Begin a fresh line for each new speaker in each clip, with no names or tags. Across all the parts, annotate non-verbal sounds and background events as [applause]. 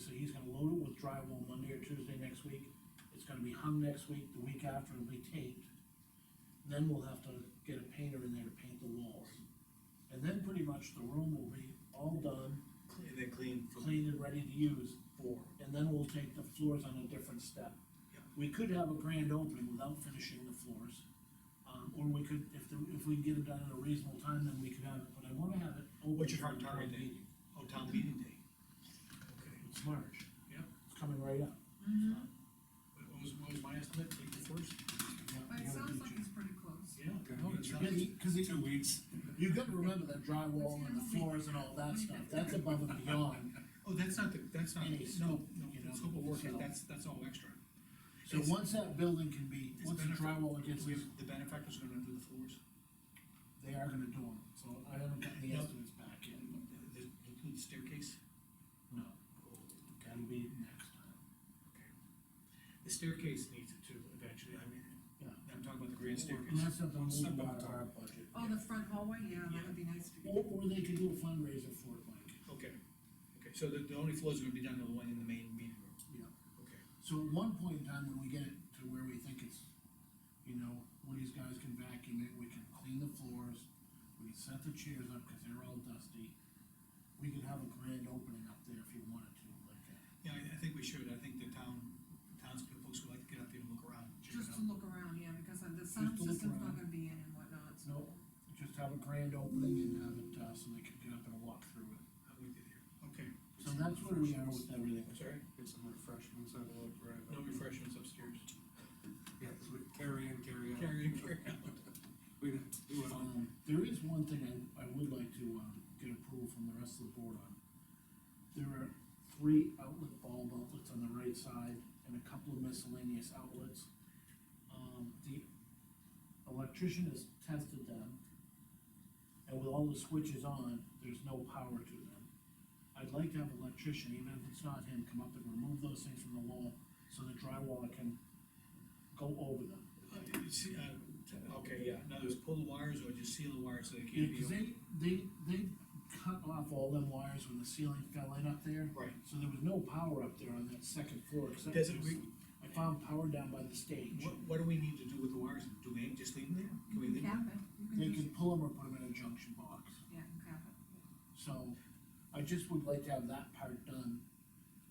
so he's gonna load it with drywall Monday or Tuesday next week. It's gonna be hung next week, the week after it'll be taped. Then we'll have to get a painter in there to paint the walls. And then pretty much the room will be all done,
and then clean from
clean and ready to use,
four.
and then we'll take the floors on a different step.
Yeah.
We could have a grand opening without finishing the floors. Um, or we could, if the, if we can get it done in a reasonable time, then we could have it, but I wanna have it open.
What's your
for the
target
town
date?
meeting.
Oh, town meeting day. Okay,
It's March.
Yep.
It's coming right up.
what was, what was my estimate, take the first?
Yeah,
But
you
it
gotta
sounds
beat
like
you.
it's pretty close.
Yeah.
Okay.
no, it's not-
Yeah, you- Cause you,
Two weeks.
you gotta remember that drywall and the floors and all that stuff, that's above and beyond.
Oh, that's not the, that's not,
Any
no,
scope, you know,
no, scope of work,
so-
that's, that's all extra.
So
It's-
once that building can be,
it's
once the
benefit-
drywall gets,
we have- The benefactor's are gonna do the floors.
they are gonna do them, so I haven't gotten the
Yep.
estimates back yet.
Does it include staircase?
No, that'll be next time.
Okay. The staircase needs it too, eventually, I mean,
Yeah.
I'm talking about the grand
And
staircase.
that's something we'll
Step
do
up
out of
top.
our budget.
Oh, the front hallway, yeah, that would be nice to
Or,
do.
or they could do a fundraiser for it, Mike.
Okay, okay, so the, the only floors are gonna be done to the one in the main meeting room,
Yeah.
okay.
So at one point in time, when we get it to where we think it's, you know, one of these guys can vacuum it, we can clean the floors, we can set the chairs up, cause they're all dusty. We could have a grand opening up there if you wanted to, like, uh,
Yeah, I, I think we should, I think the town, townspeople folks would like to get up there and look around, check it
Just to
out.
look around, yeah, because the sound
to look
system's not
around.
gonna be in and whatnot, so.
no, just have a grand opening and have it, uh, so they could get up and walk through it.
I'm with you there. Okay.
So that's where we are with everything.
I'm sorry?
Get some refreshments, have a look, right?
No refreshments upstairs.
Yeah, 'cause we carry in, carry out.
[laughs] Carry in, carry out.
We didn't do it
Um,
on,
there is one thing I, I would like to, um, get approval from the rest of the board on. There are three outlet bulb outlets on the right side and a couple of miscellaneous outlets. Um, the electrician has tested them. And with all the switches on, there's no power to them. I'd like to have an electrician, even if it's not him, come up and remove those things from the wall so the drywaller can go over them.
Uh, you See, uh, t- okay, yeah, in other words, pull the wires or just seal the wires so they
Yeah,
can't be.
cause they, they, they cut off all them wires when the ceiling fell in up there,
Right.
so there was no power up there on that second floor, cause that
Doesn't
was-
we-
I found power down by the stage.
What, what do we need to do with the wires? Do we just leave them there? Can we
You
leave
can cap
them?
it, you
They
can just,
could pull them or put them in a junction box,
yeah, cap it.
so I just would like to have that part done.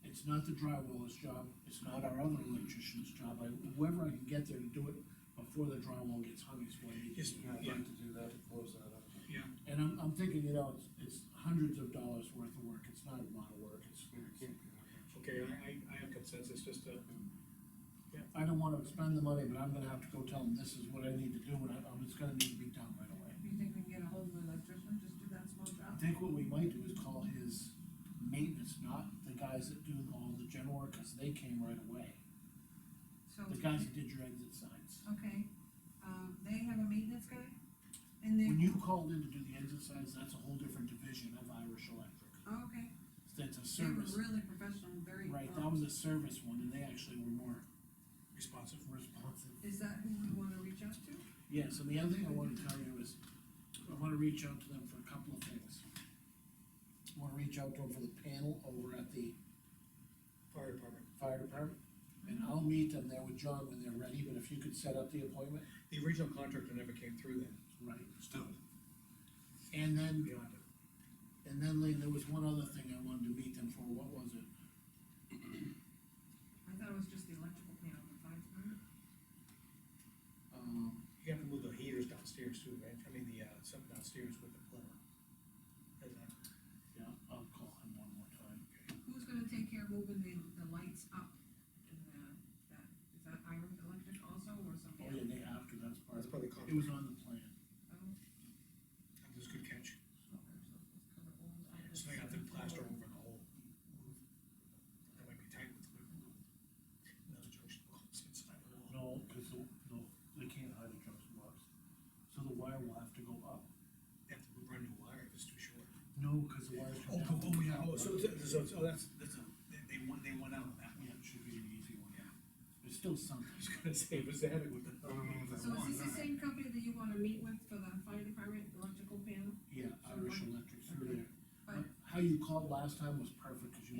It's not the drywaller's job, it's not our other electrician's job, I, whoever I can get there to do it before the drywall gets hung is what I need to
Just,
do.
I'd
yeah,
like to do that, to close that up.
yeah,
And I'm, I'm thinking, you know, it's, it's hundreds of dollars worth of work, it's not a lot of work, it's.
Yeah, it can't be that much.
okay, I, I, I have consensus, just, uh,
I don't wanna expend the money, but I'm gonna have to go tell them this is what I need to do, and I, I'm, it's gonna need to be done right away.
You think we can get a hold of an electrician, just do that small
I
job?
think what we might do is call his maintenance, not the guys that do all the general work, cause they came right away.
So,
The guys that did your exit signs.
okay, um, they have a maintenance guy, and
When
they,
you called in to do the exit signs, that's a whole different division of Irish Electric.
oh, okay,
That's a
they were
service,
really professional, very.
right,
um,
that was a service one, and they actually were more
responsive.
responsive.
Is that who we wanna reach out to?
Yes, and the other thing I wanna tell you is, I wanna reach out to them for a couple of things. I wanna reach out to them for the panel over at the
Fire department.
fire department, and I'll meet them there with John when they're ready, but if you could set up the appointment.
The original contractor never came through then,
Right.
Still,
And then,
beyond it.
and then Lee, there was one other thing I wanted to meet them for, what was it?
I thought it was just the electrical panel, the fire department.
Um,
You have to move the heaters downstairs too, right? I mean, the, uh, something downstairs with the plumber. Doesn't that-
yeah, I'll call him one more time.
Who's gonna take care of moving the, the lights up in the, that, is that Iron Electric also, or something?
Oh, yeah, they have to, that's part
That's
of,
probably
it was
contractor.
on the plan.
Oh,
That was a good catch.
okay,
So they
So it's
got the
covered all-
plaster over the whole. That might be tight with the. Another junction box inside the wall.
No, cause the, the, they can't hide the junction box, so the wire will have to go up.
They have to run new wire if it's too short.
No, cause the wires come down.
Oh, so, so, so that's, that's a, they, they won, they won out on that one. [laughs]
Yeah, it should be an easy one,
Yeah.
there's still something.
I was gonna say, was that it with the?
I don't know if that
So is
one,
this the same company that you wanna meet with for the fire department electrical panel?
Yeah, Irish uh, Electric through there.
But-
How you called last time was perfect, cause you